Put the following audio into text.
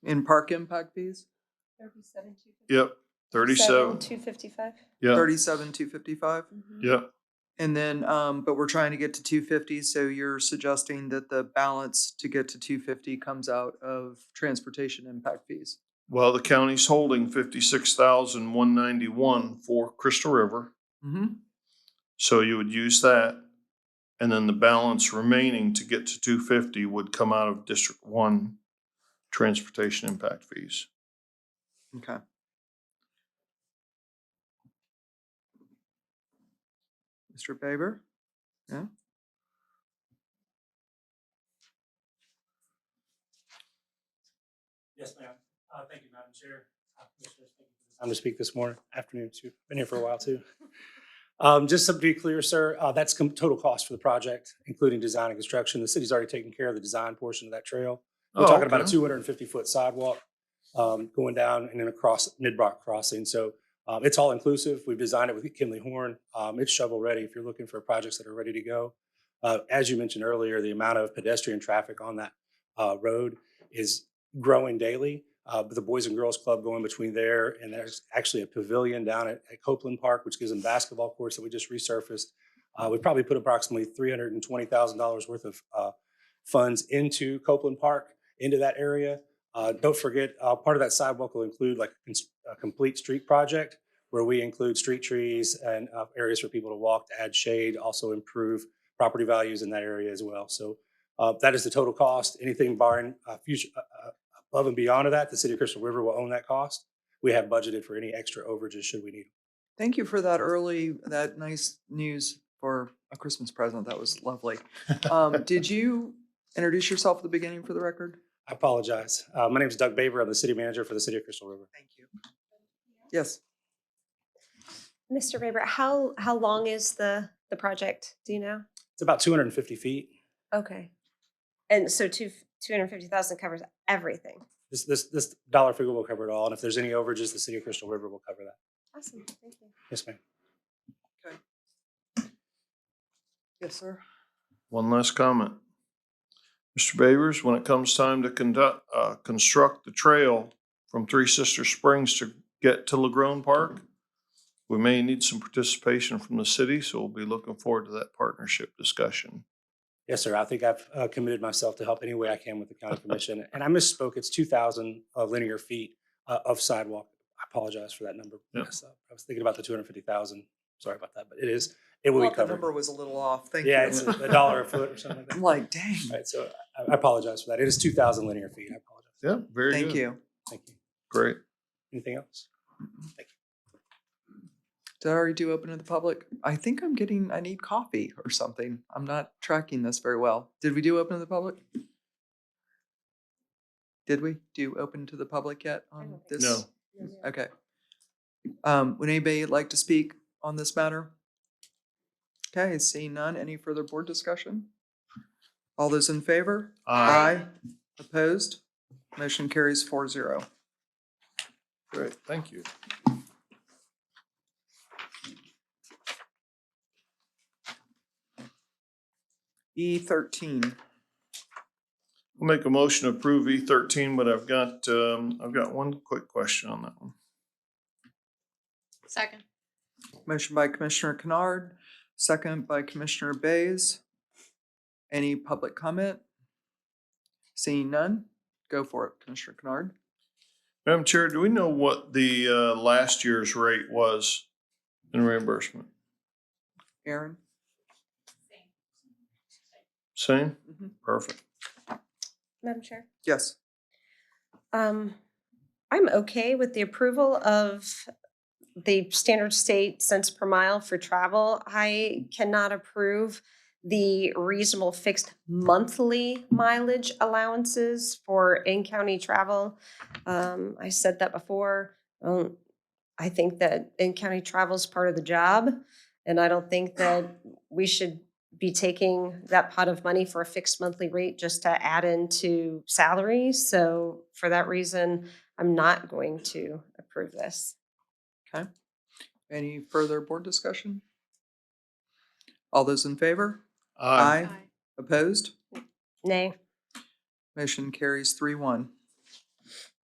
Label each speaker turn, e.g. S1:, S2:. S1: in park impact fees?
S2: Thirty-seven, two fifty.
S3: Yep, thirty-seven.
S2: Two fifty-five.
S3: Yeah,
S1: Thirty-seven, two fifty-five?
S4: Mm-hmm.
S3: yeah,
S1: And then, um, but we're trying to get to two fifty, so you're suggesting that the balance to get to two fifty comes out of transportation impact fees?
S3: well, the county's holding fifty-six thousand one ninety-one for Crystal River,
S1: Mm-hmm.
S3: so you would use that. And then the balance remaining to get to two fifty would come out of District One transportation impact fees.
S1: Okay. Mr. Faber? Yeah?
S5: Yes, ma'am. Uh, thank you, Madam Chair. Uh, Commissioners, thank you for the Time to speak this morning, afternoon too. Been here for a while too. Um, just to be clear, sir, uh, that's com- total cost for the project, including design and construction. The city's already taken care of the design portion of that trail. We're
S3: Oh,
S5: talking about a
S3: okay.
S5: two hundred and fifty foot sidewalk, um, going down and then across Midrock Crossing. So, um, it's all inclusive. We've designed it with Kinley Horn. Um, it's shovel ready if you're looking for projects that are ready to go. Uh, as you mentioned earlier, the amount of pedestrian traffic on that, uh, road is growing daily. Uh, but the Boys and Girls Club going between there, and there's actually a pavilion down at, at Copeland Park, which gives them basketball courts that we just resurfaced. Uh, we probably put approximately three hundred and twenty thousand dollars worth of uh, funds into Copeland Park, into that area. Uh, don't forget, uh, part of that sidewalk will include like a cons- a complete street project where we include street trees and uh, areas for people to walk, to add shade, also improve property values in that area as well. So uh, That is the total cost. Anything barring uh, future, uh, uh, above and beyond of that, the city of Crystal River will own that cost. We have budgeted for any extra overages should we need.
S1: Thank you for that early, that nice news for a Christmas present. That was lovely. Um, did you introduce yourself at the beginning for the record?
S5: I apologize. Uh, My name is Doug Baber. I'm the city manager for the city of Crystal River.
S1: Thank you. Yes.
S4: Mr. Raybert, how, how long is the, the project? Do you know?
S5: It's about 250 feet.
S4: Okay. And so two, two hundred and fifty thousand covers everything.
S5: This, this, this dollar figure will cover it all. And if there's any overages, the city of Crystal River will cover that.
S4: Awesome, thank you.
S5: Yes, ma'am.
S1: Yes, sir.
S3: One last comment. Mr. Babers, when it comes time to conduct, uh, construct the trail from Three Sister Springs to get to LaGrone Park, we may need some participation from the city, so we'll be looking forward to that partnership discussion.
S5: Yes, sir. I think I've uh, committed myself to help any way I can with the county commission. And I misspoke. It's 2,000 uh, linear feet uh, of sidewalk. I apologize for that number.
S3: Yeah.
S5: mess up. I was thinking about the 250,000. Sorry about that, but it is, it will be
S1: Thought the
S5: covered.
S1: number was a little off. Thank you.
S5: Yeah, it's a a dollar a foot or something like
S1: I'm
S5: that.
S1: like, dang.
S5: Right, so I- I apologize for that. It is 2,000 linear feet. I apologize.
S3: Yeah, very
S1: Thank
S3: good.
S1: you.
S5: Thank you.
S3: Great.
S5: Anything else?
S1: Did I already do open to the public? I think I'm getting, I need coffee or something. I'm not tracking this very well. Did we do open to the public? Did we do open to the public yet on
S4: don't think
S1: this?
S3: No.
S1: Okay. Um, would anybody like to speak on this matter? Okay, seeing none, any further board discussion? All those in favor?
S3: Aye.
S1: Opposed? Motion carries four zero.
S3: Great, thank you.
S1: E thirteen.
S3: I'll make a motion to approve E thirteen, but I've got, um, I've got one quick question on that one.
S6: Second.
S1: Motion by Commissioner Kennard, second by Commissioner Bays. Any public comment? Seeing none, go for it, Commissioner Kennard.
S3: Madam Chair, do we know what the, uh, last year's rate was in reimbursement?
S1: Aaron?
S3: Same?
S1: Mhm.
S3: Perfect.
S4: Madam Chair?
S1: Yes.
S4: Um, I'm okay with the approval of the standard state cents per mile for travel. I cannot approve the reasonable fixed monthly mileage allowances for in-county travel. Um, I said that before. Um, I think that in-county travel is part of the job. And I don't think that we should be taking that pot of money for a fixed monthly rate just to add into salary. So for that reason, I'm not going to approve this.
S1: Any further board discussion? All those in favor?
S3: Aye.
S1: Opposed?
S4: Nay.
S1: Motion carries three one.